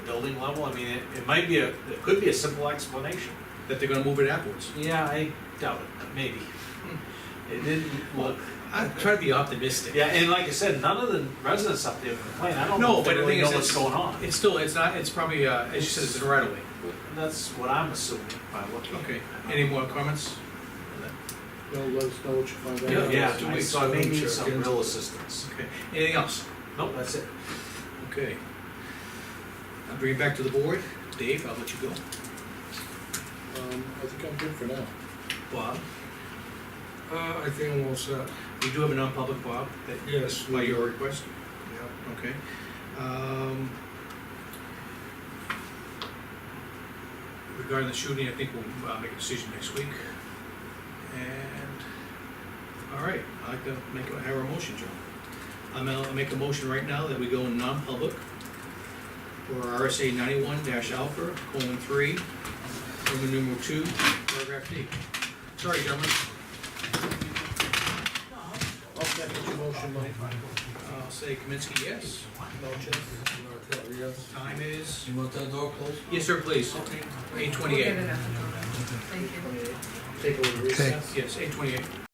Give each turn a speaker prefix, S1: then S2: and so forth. S1: building level, I mean, it, it might be a, it could be a simple explanation.
S2: that they're gonna move it afterwards.
S1: Yeah, I doubt it, but maybe. It didn't look,
S2: I try to be optimistic.
S1: Hmm. yeah, and like I said, none of the residents up there complain, I don't
S2: No,
S1: know if they
S2: but the
S1: really
S2: thing
S1: know
S2: is,
S1: what's
S2: it's-
S1: going on.
S2: It's still, it's not, it's probably, uh, as you said, it's a right away.
S1: That's what I'm assuming by looking.
S2: Okay, any more comments?
S3: Well, let us know what you find
S2: Yeah,
S3: out.
S1: Yeah,
S2: two
S1: I-
S2: weeks,
S1: so I may
S2: I'm
S1: need
S2: sure.
S1: some real assistance.
S2: Okay, anything else?
S1: Nope, that's it.
S2: Okay. I'll bring it back to the board. Dave, I'll let you go.
S3: Um, I think I'm good for now.
S2: Bob,
S4: Uh, I think I'm all set,
S2: we do have a non-public, Bob, that,
S4: yes.
S2: by your request,
S4: Yeah.
S2: okay? Um, Regarding the shooting, I think we'll uh, make a decision next week. And, all right, I'd like to make, a- have a motion, John. I'm gonna I'll make a motion right now that we go in non-public for RSA ninety-one dash alpha, colon three, Roman numeral two, paragraph D. Sorry, gentlemen.
S3: I'll second your motion, Mike.
S2: I'll say Kaminsky, yes.
S3: Melchett?
S2: Time is,
S5: You want that door closed?
S2: yes, sir, please. Eight
S6: We'll get
S2: twenty-eight.
S6: it out. Thank you.
S3: Take a little recess.
S2: Yes, eight twenty-eight.